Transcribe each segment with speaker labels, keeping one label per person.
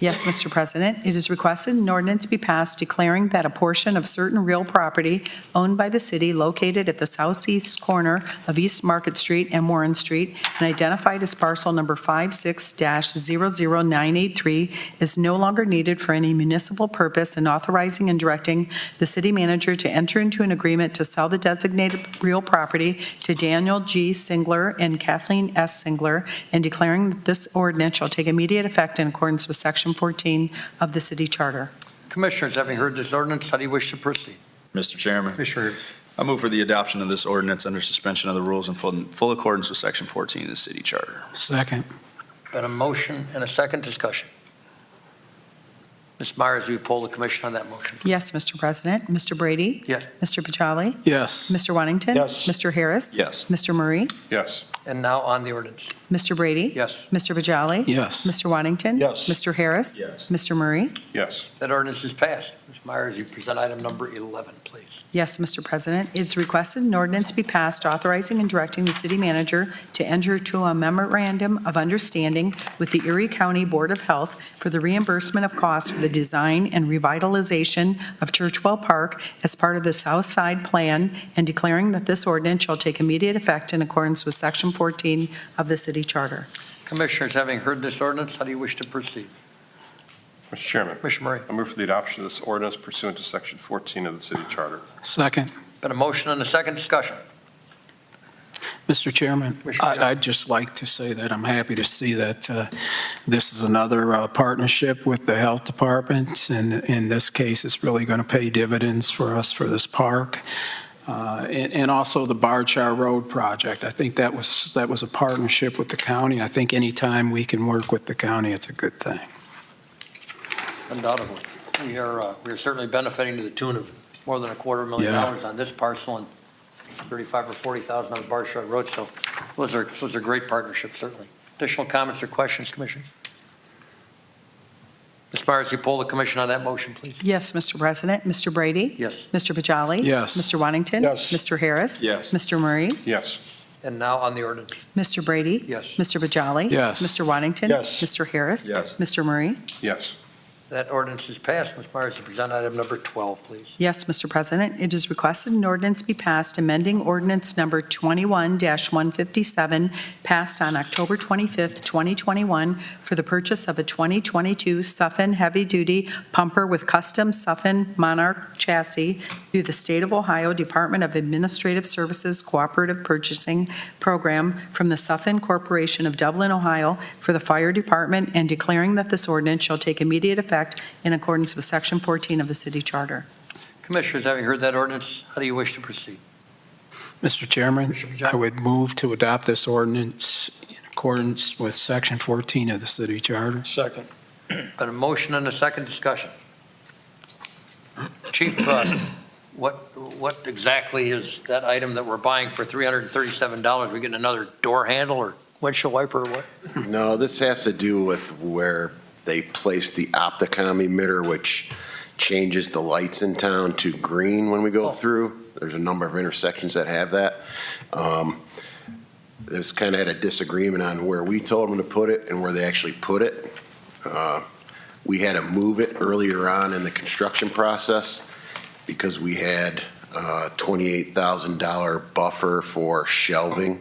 Speaker 1: Yes, Mr. President. It is requested an ordinance be passed declaring that a portion of certain real property owned by the city located at the southeast corner of East Market Street and Warren Street and identified as parcel number 56-00983 is no longer needed for any municipal purpose and authorizing and directing the city manager to enter into an agreement to sell the designated real property to Daniel G. Singler and Kathleen S. Singler and declaring that this ordinance shall take immediate effect in accordance with Section 14 of the city charter.
Speaker 2: Commissioners, having heard this ordinance, how do you wish to proceed?
Speaker 3: Mr. Chairman,
Speaker 2: Commissioner Rea-
Speaker 3: I move for the adoption of this ordinance under suspension of the rules in full- in full accordance with Section 14 of the city charter.
Speaker 4: Second.
Speaker 2: Been a motion and a second discussion. Ms. Myers, will you poll the commission on that motion?
Speaker 1: Yes, Mr. President. Mr. Brady?
Speaker 2: Yes.
Speaker 1: Mr. Bajali?
Speaker 4: Yes.
Speaker 1: Mr. Wantington?
Speaker 5: Yes.
Speaker 1: Mr. Harris?
Speaker 3: Yes.
Speaker 1: Mr. Murray?
Speaker 5: Yes.
Speaker 2: And now on the ordinance.
Speaker 1: Mr. Brady?
Speaker 2: Yes,
Speaker 1: Mr. Bajali?
Speaker 4: Yes.
Speaker 1: Mr. Wantington?
Speaker 5: Yes.
Speaker 1: Mr. Harris?
Speaker 3: Yes.
Speaker 1: Mr. Murray?
Speaker 5: Yes.
Speaker 2: that ordinance is passed. Ms. Myers, you present item number 11, please.
Speaker 1: Yes, Mr. President. It is requested an ordinance be passed authorizing and directing the city manager to enter to a memorandum of understanding with the Erie County Board of Health for the reimbursement of costs for the design and revitalization of Churchwell Park as part of the South Side Plan and declaring that this ordinance shall take immediate effect in accordance with Section 14 of the city charter.
Speaker 2: Commissioners, having heard this ordinance, how do you wish to proceed?
Speaker 5: Mr. Chairman,
Speaker 2: Commissioner Murray,
Speaker 5: I move for the adoption of this ordinance pursuant to Section 14 of the City Charter.
Speaker 4: Second.
Speaker 2: been a motion and a second discussion.
Speaker 4: Mr. Chairman,
Speaker 2: Commissioner
Speaker 4: I-
Speaker 2: Jones.
Speaker 4: I'd just like to say that I'm happy to see that uh, this is another uh, partnership with the Health Department, and in this case, it's really going to pay dividends for us for this park. Uh, And and also the Barchar Road project. I think that was, that was a partnership with the county. I think anytime we can work with the county, it's a good thing.
Speaker 2: Undoubtedly. We are, uh, we are certainly benefiting to the tune of more than a quarter million
Speaker 4: Yeah.
Speaker 2: dollars on this parcel and 35 or 40,000 on the Barshard Road. So those are, those are great partnerships, certainly. Additional comments or questions, Commissioners? Ms. Myers, you poll the commission on that motion, please.
Speaker 1: Yes, Mr. President. Mr. Brady?
Speaker 2: Yes.
Speaker 1: Mr. Bajali?
Speaker 4: Yes.
Speaker 1: Mr. Wantington?
Speaker 5: Yes.
Speaker 1: Mr. Harris?
Speaker 3: Yes.
Speaker 1: Mr. Murray?
Speaker 5: Yes.
Speaker 2: And now on the ordinance.
Speaker 1: Mr. Brady?
Speaker 2: Yes.
Speaker 1: Mr. Bajali?
Speaker 4: Yes.
Speaker 1: Mr. Waddington?
Speaker 5: Yes.
Speaker 1: Mr. Harris?
Speaker 3: Yes.
Speaker 1: Mr. Murray?
Speaker 5: Yes.
Speaker 2: That ordinance is passed. Ms. Myers, you present item number 12, please.
Speaker 1: Yes, Mr. President. It is requested an ordinance be passed amending ordinance number 21-157, passed on October 25th, 2021, for the purchase of a 2022 Suffin heavy-duty pumper with custom Suffin Monarch chassis through the State of Ohio Department of Administrative Services Cooperative Purchasing Program from the Suffin Corporation of Dublin, Ohio, for the Fire Department, and declaring that this ordinance shall take immediate effect in accordance with Section 14 of the City Charter.
Speaker 2: Commissioners, having heard that ordinance, how do you wish to proceed?
Speaker 4: Mr. Chairman,
Speaker 2: Commissioner Jones.
Speaker 4: I would move to adopt this ordinance in accordance with Section 14 of the city charter.
Speaker 5: Second.
Speaker 2: Been a motion and a second discussion. Chief, uh, what, what exactly is that item that we're buying for $337? We getting another door handle or windshield wiper or what?
Speaker 6: No, this has to do with where they placed the Opticom emitter, which changes the lights in town to green when we
Speaker 2: Oh.
Speaker 6: go through. There's a number of intersections that have that. Um, There's kind of had a disagreement on where we told them to put it and where they actually put it. Uh, We had to move it earlier on in the construction process because we had uh, a $28,000 buffer for shelving,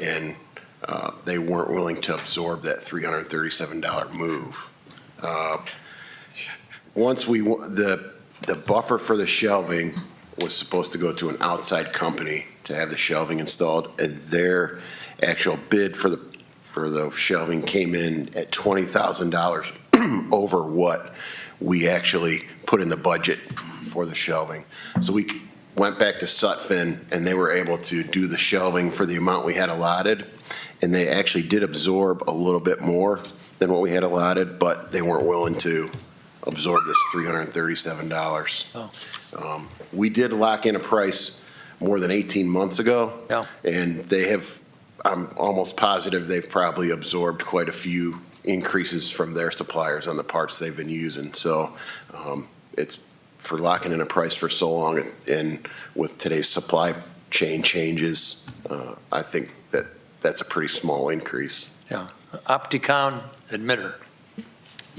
Speaker 6: and uh, they weren't willing to absorb that $337 move. Uh, Once we, wa- the, the buffer for the shelving was supposed to go to an outside company to have the shelving installed, and their actual bid for the, for the shelving came in at $20,000 over what we actually put in the budget for the shelving. So we c- went back to Sutphen, and they were able to do the shelving for the amount we had allotted, and they actually did absorb a little bit more than what we had allotted, but they weren't willing to absorb this $337. Um, We did lock in a price more than 18 months ago.
Speaker 2: Yeah.
Speaker 6: And they have, I'm almost positive they've probably absorbed quite a few increases from their suppliers on the parts they've been using. So um, it's for locking in a price for so long and with today's supply chain changes, uh, I think that that's a pretty small increase.
Speaker 2: Opticon emitter.